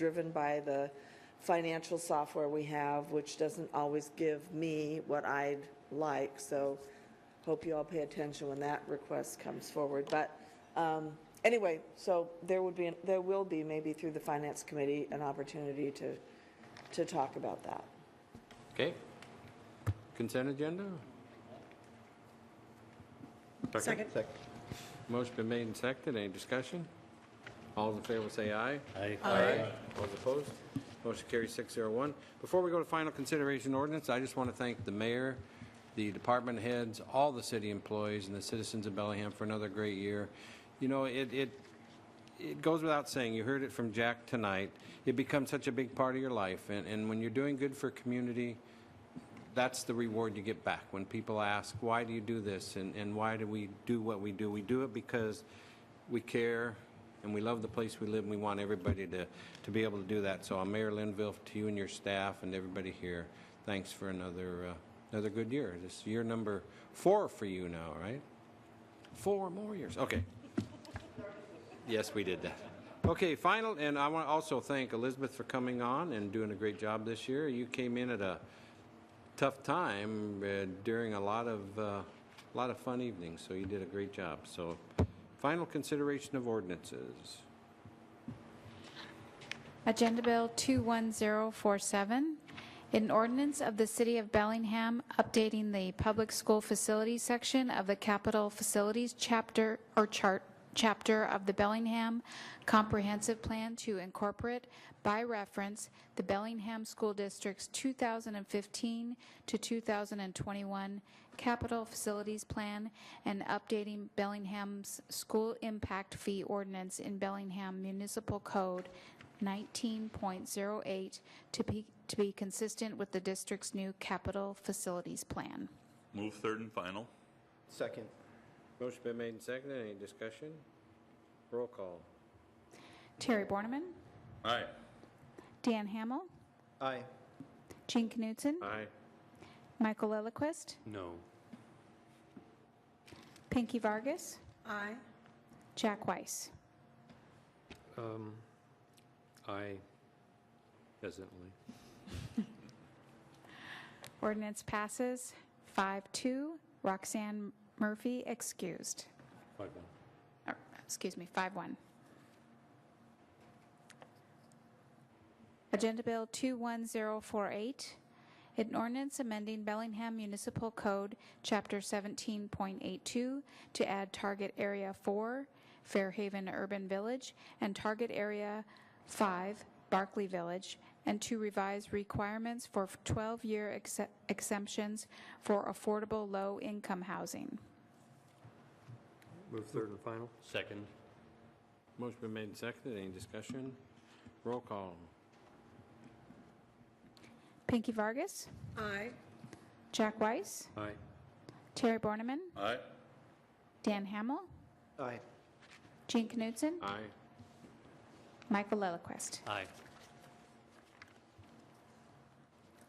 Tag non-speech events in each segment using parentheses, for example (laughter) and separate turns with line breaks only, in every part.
driven by the financial software we have, which doesn't always give me what I'd like, so hope you all pay attention when that request comes forward. But um, anyway, so there would be, there will be, maybe through the Finance Committee, an opportunity to, to talk about that.
Okay. Consent agenda?
Second.
Motion been made and seconded. Any discussion? All in favor say aye.
Aye.
All opposed? Motion carries six zero one. Before we go to final consideration ordinance, I just want to thank the mayor, the department heads, all the city employees, and the citizens of Bellingham for another great year. You know, it, it, it goes without saying, you heard it from Jack tonight, it becomes such a big part of your life. And, and when you're doing good for community, that's the reward you get back when people ask, why do you do this and, and why do we do what we do? We do it because we care and we love the place we live and we want everybody to, to be able to do that. So, uh, Mayor Linville, to you and your staff and everybody here, thanks for another, uh, another good year. This is year number four for you now, right? Four more years. Okay. (laughs) Yes, we did that. Okay, final, and I want to also thank Elizabeth for coming on and doing a great job this year. You came in at a tough time uh, during a lot of, a lot of fun evenings, so you did a great job. So, final consideration of ordinances.
Agenda Bill 21047, an ordinance of the City of Bellingham updating the Public School Facilities section of the Capital Facilities Chapter, or Chart, Chapter of the Bellingham Comprehensive Plan to incorporate by reference the Bellingham School District's 2015 to 2021 Capital Facilities Plan and updating Bellingham's School Impact Fee Ordinance in Bellingham Municipal Code 19.08 to be, to be consistent with the district's new capital facilities plan.
Move third and final.
Second.
Motion been made and seconded. Any discussion? Roll call.
Terry Borneman,
Aye.
Dan Hamel,
Aye.
Gene Knutson,
Aye.
Michael Lillquist,
No.
Pinky Vargas,
Aye.
Jack Weiss.
Um, aye. Hesitantly.
Ordinance passes 5-2. Roxanne Murphy excused.
Five one.
or, Oh, excuse me, 5-1. Agenda Bill 21048, an ordinance amending Bellingham Municipal Code, Chapter 17.82, to add Target Area 4, Fairhaven Urban Village, and Target Area 5, Barclay Village, and to revise requirements for 12-year exe- exemptions for affordable low-income housing.
Move third and final.
Second.
Motion been made and seconded. Any discussion? Roll call.
Pinky Vargas?
Aye.
Jack Weiss?
Aye.
Terry Borneman,
Aye.
Dan Hamel,
Aye.
Gene Knutson,
Aye.
Michael Lillquist.
Aye.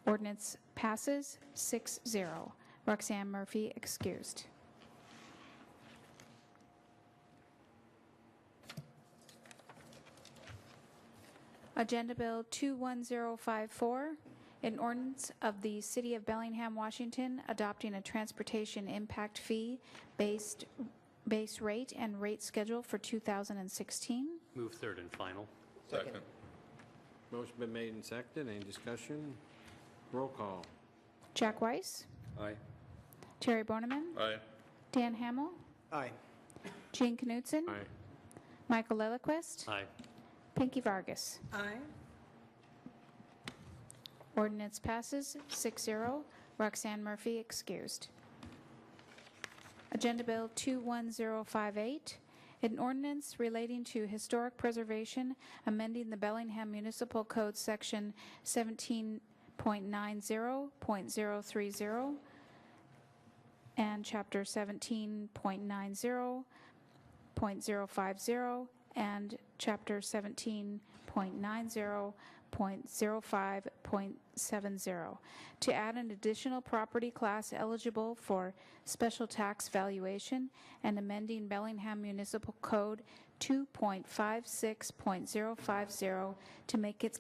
Ordinance passes 6-0. Roxanne Murphy excused. Agenda Bill 21054, an ordinance of the City of Bellingham, Washington, adopting a transportation impact fee based, base rate and rate schedule for 2016.
Move third and final.
Second.
Motion been made and seconded. Any discussion? Roll call.
Jack Weiss,
Aye.
Terry Boneman,
Aye.
Dan Hamel,
Aye.
Gene Knutson,
Aye.
Michael Lillquist,
Aye.
Pinky Vargas.
Aye.
Ordinance passes 6-0. Roxanne Murphy excused. Agenda Bill 21058, an ordinance relating to historic preservation, amending the Bellingham Municipal Code Section 17.90.030 and Chapter 17.90.050 and Chapter 17.90.050 1.90.05.70, to add an additional property class eligible for special tax valuation and amending Bellingham Municipal Code 2.56.050 to make its